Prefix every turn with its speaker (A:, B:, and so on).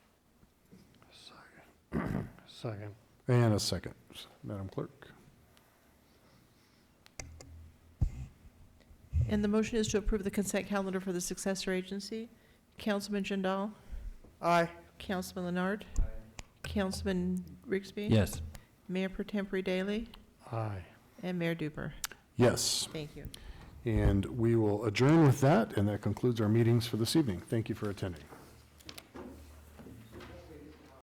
A: Second.
B: And a second. Madam Clerk?
C: And the motion is to approve the consent calendar for the successor agency. Councilman Jindal?
A: Aye.
C: Councilman Leonard? Councilman Rigsby?
D: Yes.
C: Mayor Per Tempore Daily?
A: Aye.
C: And Mayor Duper?
B: Yes.
C: Thank you.
B: And we will adjourn with that, and that concludes our meetings for this evening. Thank you for attending.